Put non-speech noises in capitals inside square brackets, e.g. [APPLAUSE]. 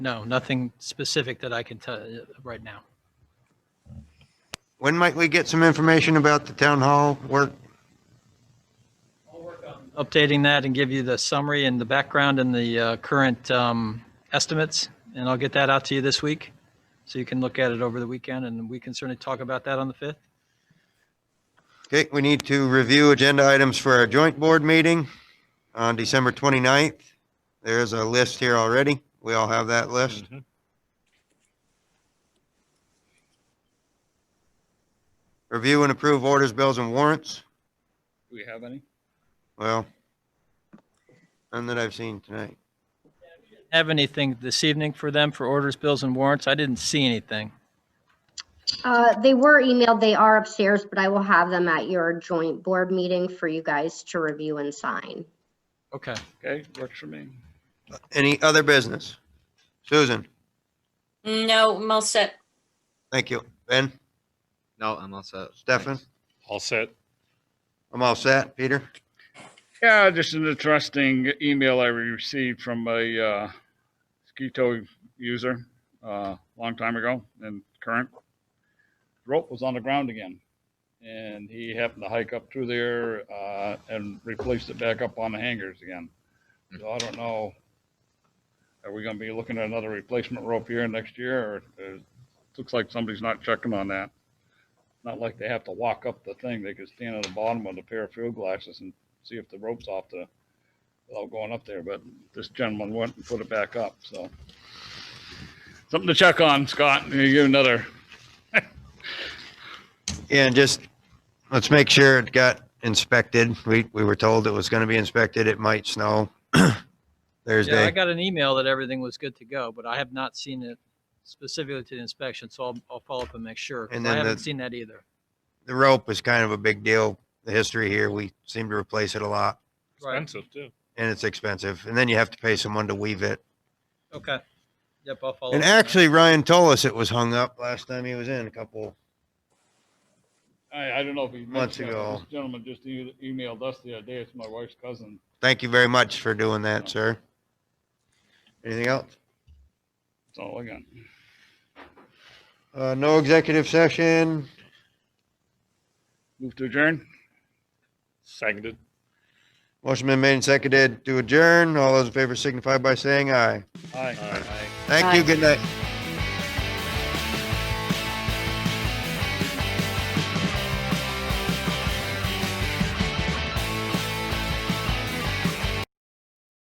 No, nothing specific that I can tell you right now. When might we get some information about the town hall work? Updating that and give you the summary and the background and the uh, current um, estimates, and I'll get that out to you this week. So you can look at it over the weekend, and we can certainly talk about that on the 5th. Okay, we need to review agenda items for our joint board meeting on December 29th. There's a list here already. We all have that list. Mm-hmm. Review and approve orders, bills and warrants. Do we have any? Well, none that I've seen tonight. Have anything this evening for them for orders, bills, and warrants? I didn't see anything. Uh, They were emailed, they are upstairs, but I will have them at your joint board meeting for you guys to review and sign. Okay. Okay, works for me. Any other business? Susan, No, I'm all set. thank you. Ben, No, I'm all set. Stefan, All set. I'm all set. Peter? Yeah, just an interesting email I received from a uh, Skeeto user uh, long time ago and current. Rope was on the ground again, and he happened to hike up through there uh, and replaced it back up on the hangers again. So I don't know. Are we going to be looking at another replacement rope here next year, or, or looks like somebody's not checking on that? Not like they have to walk up the thing; they could stand at the bottom with a pair of field glasses and see if the rope's off the, without going up there, but this gentleman went and put it back up, so. Something to check on, Scott, you another, Yeah, and just, let's make sure it got inspected. We, we were told it was gonna be inspected. It might snow [CLEARS THROAT] Yeah, I Thursday. got an email that everything was good to go, but I have not seen it specifically to the inspection, so I'll, I'll follow up and make sure. 'cause And I then the- haven't seen that either. The rope is kind of a big deal. The history here, we seem to replace it a lot Right, Expensive too. and it's expensive. And then you have to pay someone to weave it. okay. Yep, I'll follow. And up on that. actually Ryan told us it was hung up last time he was in a couple. I, I don't know if he. Months mentioned it, but ago. This gentleman just e- emailed us the other day, it's my wife's cousin. Thank you very much for doing that, sir. Anything else? So again, Uh, no executive session. move to adjourn? Seconded. Motion been made and seconded to adjourn. All those in favor signify by saying aye. Aye. Aye. Thank you. Aye. Good night.